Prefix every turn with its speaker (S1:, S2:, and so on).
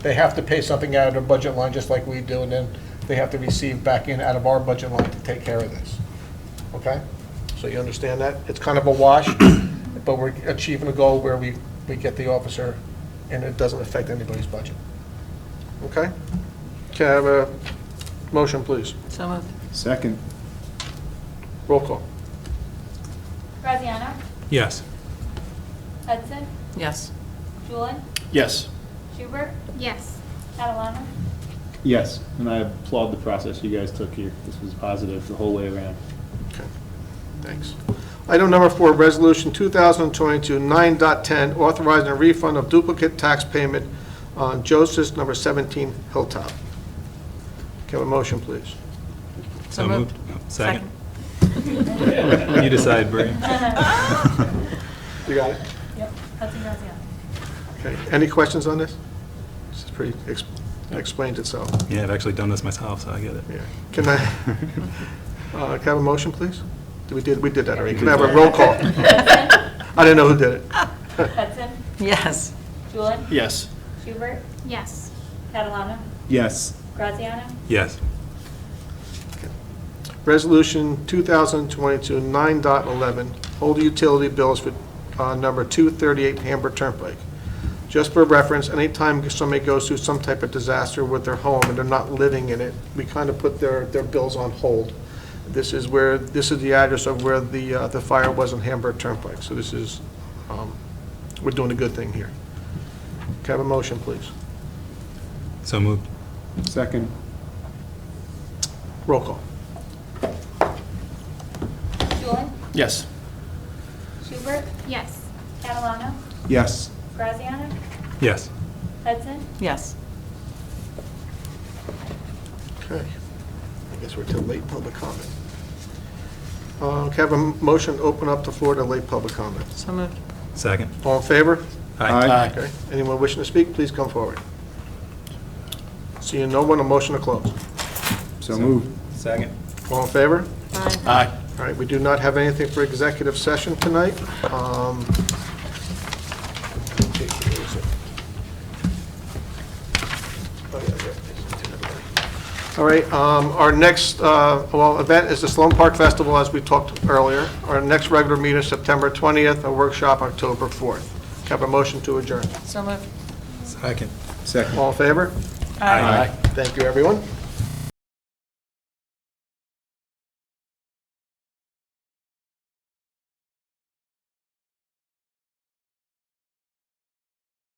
S1: They have to pay something out of their budget line, just like we do, and then they have to receive back in out of our budget line to take care of this. Okay? So you understand that? It's kind of a wash, but we're achieving a goal where we, we get the officer, and it doesn't affect anybody's budget. Okay? Can I have a motion, please?
S2: So moved.
S3: Second.
S1: Roll call.
S4: Graziano?
S5: Yes.
S4: Hudson?
S2: Yes.
S4: Julian?
S3: Yes.
S4: Schubert?
S6: Yes.
S4: Catalano?
S3: Yes, and I applaud the process you guys took here. This was positive the whole way around.
S1: Okay, thanks. Item number four, Resolution 2022-9.10, authorizing a refund of duplicate tax payment on Joseph's number 17 Hilltop. Can I have a motion, please?
S2: So moved.
S5: Second. Oh, You decide, Bree.
S1: You got it.
S4: Yep. Hudson Graziano?
S1: Okay, any questions on this? This is pretty, ex- explained itself,
S5: Yeah, I've actually done this myself, so I get it.
S1: yeah. Can I, uh, can I have a motion, please? We did, we did that already. Can I have a roll call? I didn't know who did it.
S4: Hudson?
S2: Yes.
S4: Julian?
S3: Yes.
S4: Schubert?
S6: Yes.
S4: Catalano?
S3: Yes.
S4: Graziano?
S5: Yes.
S1: Resolution 2022-9.11, hold utility bills for uh, number 238 Hamburg Turnpike. Just for reference, anytime somebody goes through some type of disaster with their home and they're not living in it, we kind of put their, their bills on hold. This is where, this is the address of where the, uh, the fire was on Hamburg Turnpike. So this is, um, we're doing a good thing here. Can I have a motion, please?
S5: So moved.
S3: Second.
S1: Roll call.
S4: Julian?
S3: Yes.
S4: Schubert?
S6: Yes.
S4: Catalano?
S3: Yes.
S4: Graziano?
S5: Yes.
S4: Hudson?
S2: Yes.
S1: Okay. I guess we're to late public comment. Uh, Can I have a motion, to open up the floor to late public comment?
S2: So moved.
S5: Second.
S1: All in favor?
S5: Aye.
S1: Okay. Anyone wishing to speak, please come forward. Seeing no one, a motion to close.
S3: So moved.
S5: Second.
S1: All in favor?
S3: Aye.
S1: All right, we do not have anything for executive session tonight. Um, All right, um, our next, uh, well, event is the Sloan Park Festival, as we talked earlier. Our next regular meeting is September 20th, a workshop October 4th. Can I Have a motion to adjourn.
S2: So moved.
S5: Second.
S3: Second.
S1: All in favor?
S3: Aye.
S1: Thank you, everyone.